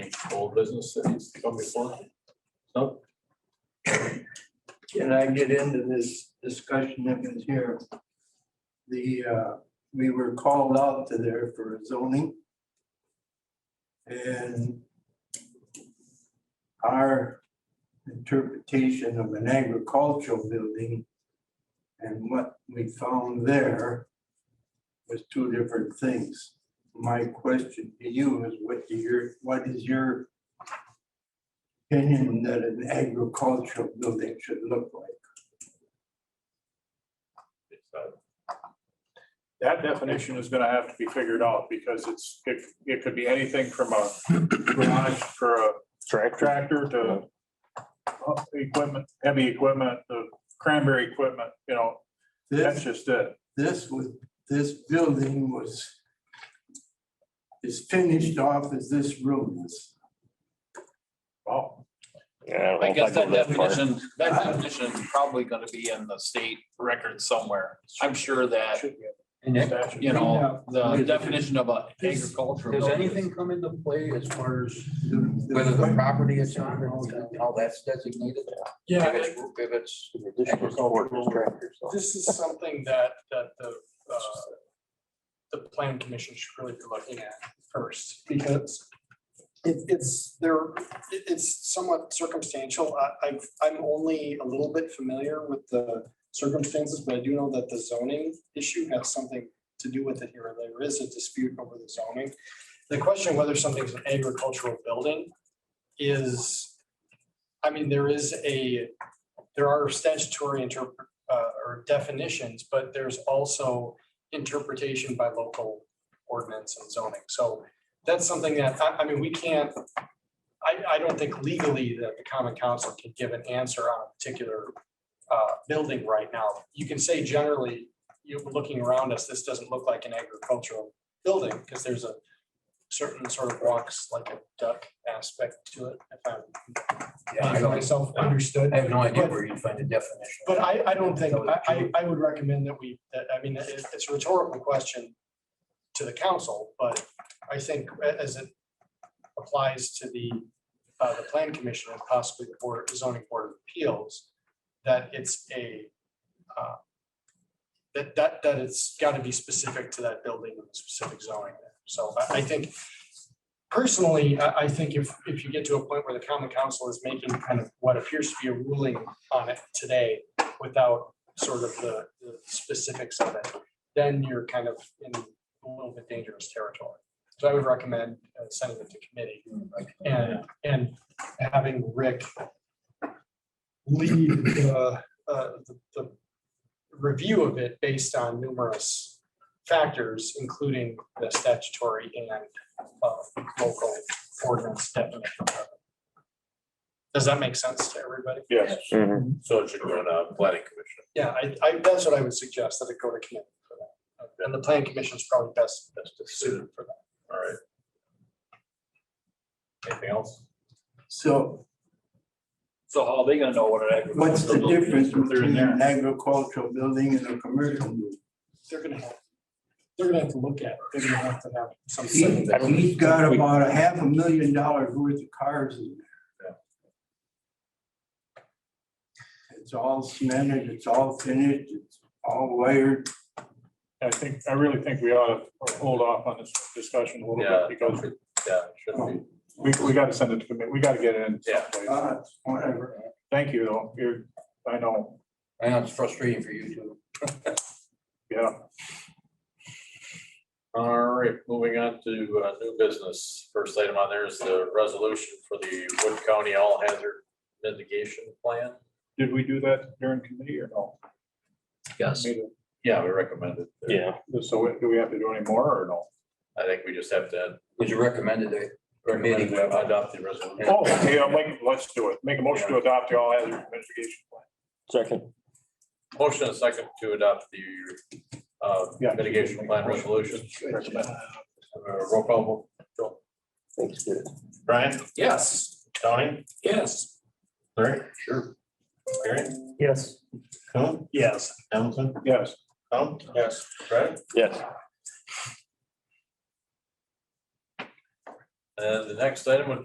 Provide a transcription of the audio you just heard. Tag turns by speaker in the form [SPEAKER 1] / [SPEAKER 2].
[SPEAKER 1] any old business that needs to come before? No,
[SPEAKER 2] Can I get into this discussion that was here? The, uh, we were called out to there for zoning. And our interpretation of an agricultural building and what we found there was two different things. My question to you is what do your, what is your opinion that an agricultural building should look like?
[SPEAKER 3] it's, uh, That definition is gonna have to be figured out because it's, it, it could be anything from a garage for a
[SPEAKER 4] Tractor.
[SPEAKER 3] tractor to uh, equipment, heavy equipment, the cranberry equipment, you know,
[SPEAKER 2] This,
[SPEAKER 3] that's just it.
[SPEAKER 2] this was, this building was is finished off as this room is.
[SPEAKER 3] Well,
[SPEAKER 4] Yeah.
[SPEAKER 5] I guess that
[SPEAKER 4] definition.
[SPEAKER 5] definition, that definition is probably gonna be in the state record somewhere. I'm sure
[SPEAKER 3] that
[SPEAKER 5] that,
[SPEAKER 3] should be
[SPEAKER 6] And
[SPEAKER 3] a
[SPEAKER 6] that-
[SPEAKER 3] statute.
[SPEAKER 5] you know, the
[SPEAKER 6] Does-
[SPEAKER 5] definition of a
[SPEAKER 6] does-
[SPEAKER 5] agricultural.
[SPEAKER 6] does
[SPEAKER 5] building is-
[SPEAKER 6] anything come into play as far as
[SPEAKER 2] The- the-
[SPEAKER 6] whether the property is on and all that, and all that's designated?
[SPEAKER 7] Yeah,
[SPEAKER 6] If
[SPEAKER 7] I-
[SPEAKER 6] it's- If it's
[SPEAKER 7] this is something that, that the, uh, the planning commission should really be looking at first, because it, it's, there, it- it's somewhat circumstantial. I, I've, I'm only a little bit familiar with the circumstances, but I do know that the zoning issue has something to do with it here. There is a dispute over the zoning. The question whether something's an agricultural building is, I mean, there is a, there are statutory interpret, uh, or definitions, but there's also interpretation by local ordinance and zoning. So that's something that, I, I mean, we can't, I, I don't think legally that the common council can give an answer on a particular uh, building right now. You can say generally, you're looking around us, this doesn't look like an agricultural building, because there's a certain sort of walks like a duck aspect to it, if
[SPEAKER 6] I
[SPEAKER 7] I'm,
[SPEAKER 6] don't-
[SPEAKER 7] myself understood.
[SPEAKER 6] I have no idea where you'd find a definition.
[SPEAKER 7] But I, I don't think, I, I, I would recommend that we, that, I mean, it- it's a rhetorical question to the council, but I think a- as it applies to the, uh, the plan commission and possibly the board, zoning board of appeals, that it's a, uh, that, that, that it's got to be specific to that building and specific zoning. there. So I, I think personally, I, I think if, if you get to a point where the common council is making kind of what appears to be a ruling on it today, without sort of the the specifics of it, then you're kind of in a little bit dangerous territory. So I would recommend uh, sending it to committee and, and having Rick lead the, uh, the- the review of it based on numerous factors, including the statutory and uh, local ordinance definition. Does that make sense to everybody?
[SPEAKER 3] Yes,
[SPEAKER 1] so it should go to planning commission.
[SPEAKER 7] Yeah, I, I, that's what I would suggest, that it go to committee for that. And the plan commission is probably best, best suited for that.
[SPEAKER 1] All right. Anything else?
[SPEAKER 2] So
[SPEAKER 5] So how are they gonna know what an agricultural?
[SPEAKER 2] what's the
[SPEAKER 5] building is
[SPEAKER 2] difference
[SPEAKER 5] if they're in
[SPEAKER 2] between
[SPEAKER 5] there?
[SPEAKER 2] an agricultural building and a commercial? building?
[SPEAKER 7] They're gonna have, they're gonna have to look at, it. they're gonna have to have some.
[SPEAKER 2] He- He's got about a half a million dollars worth of cars in there. It's all cemented, it's all finished, it's all wired.
[SPEAKER 3] I think, I really think we ought to hold off on this discussion a little
[SPEAKER 1] Yeah.
[SPEAKER 3] bit because
[SPEAKER 1] Yeah, it should be.
[SPEAKER 3] we, we gotta send it to commit, we gotta get it in.
[SPEAKER 1] Yeah.
[SPEAKER 3] someplace.
[SPEAKER 2] Uh, Whatever.
[SPEAKER 3] Thank you, though, you're, I know,
[SPEAKER 6] I know it's frustrating for you too.
[SPEAKER 3] yeah.
[SPEAKER 1] All right, moving on to uh, new business. First item on there is the resolution for the Wood County All Hazard Mitigation Plan.
[SPEAKER 3] Did we do that during committee or no?
[SPEAKER 5] Yes.
[SPEAKER 1] Yeah, we recommend it.
[SPEAKER 4] Yeah.
[SPEAKER 3] So do we have to do any more or no?
[SPEAKER 1] I think we just have to
[SPEAKER 6] Would you recommend it? eh? Or
[SPEAKER 1] recommend
[SPEAKER 6] meeting?
[SPEAKER 1] to adopt the resolution.
[SPEAKER 3] Oh, okay, I'll make, let's do it. Make a motion to adopt the all hazard mitigation plan.
[SPEAKER 4] Second.
[SPEAKER 1] Motion and second to adopt the uh,
[SPEAKER 3] Yeah.
[SPEAKER 1] mitigation plan resolution.
[SPEAKER 3] Recommend.
[SPEAKER 1] Uh, Roll call vote. Joe.
[SPEAKER 4] Thanks, good.
[SPEAKER 1] Brian,
[SPEAKER 5] Yes,
[SPEAKER 1] Tony,
[SPEAKER 5] yes.
[SPEAKER 1] Larry? Sure. Aaron?
[SPEAKER 6] Yes.
[SPEAKER 1] Coon?
[SPEAKER 7] Yes.
[SPEAKER 1] Hamilton?
[SPEAKER 3] Yes,
[SPEAKER 1] Tom? Yes. Brad?
[SPEAKER 4] Yes.
[SPEAKER 1] And the next item would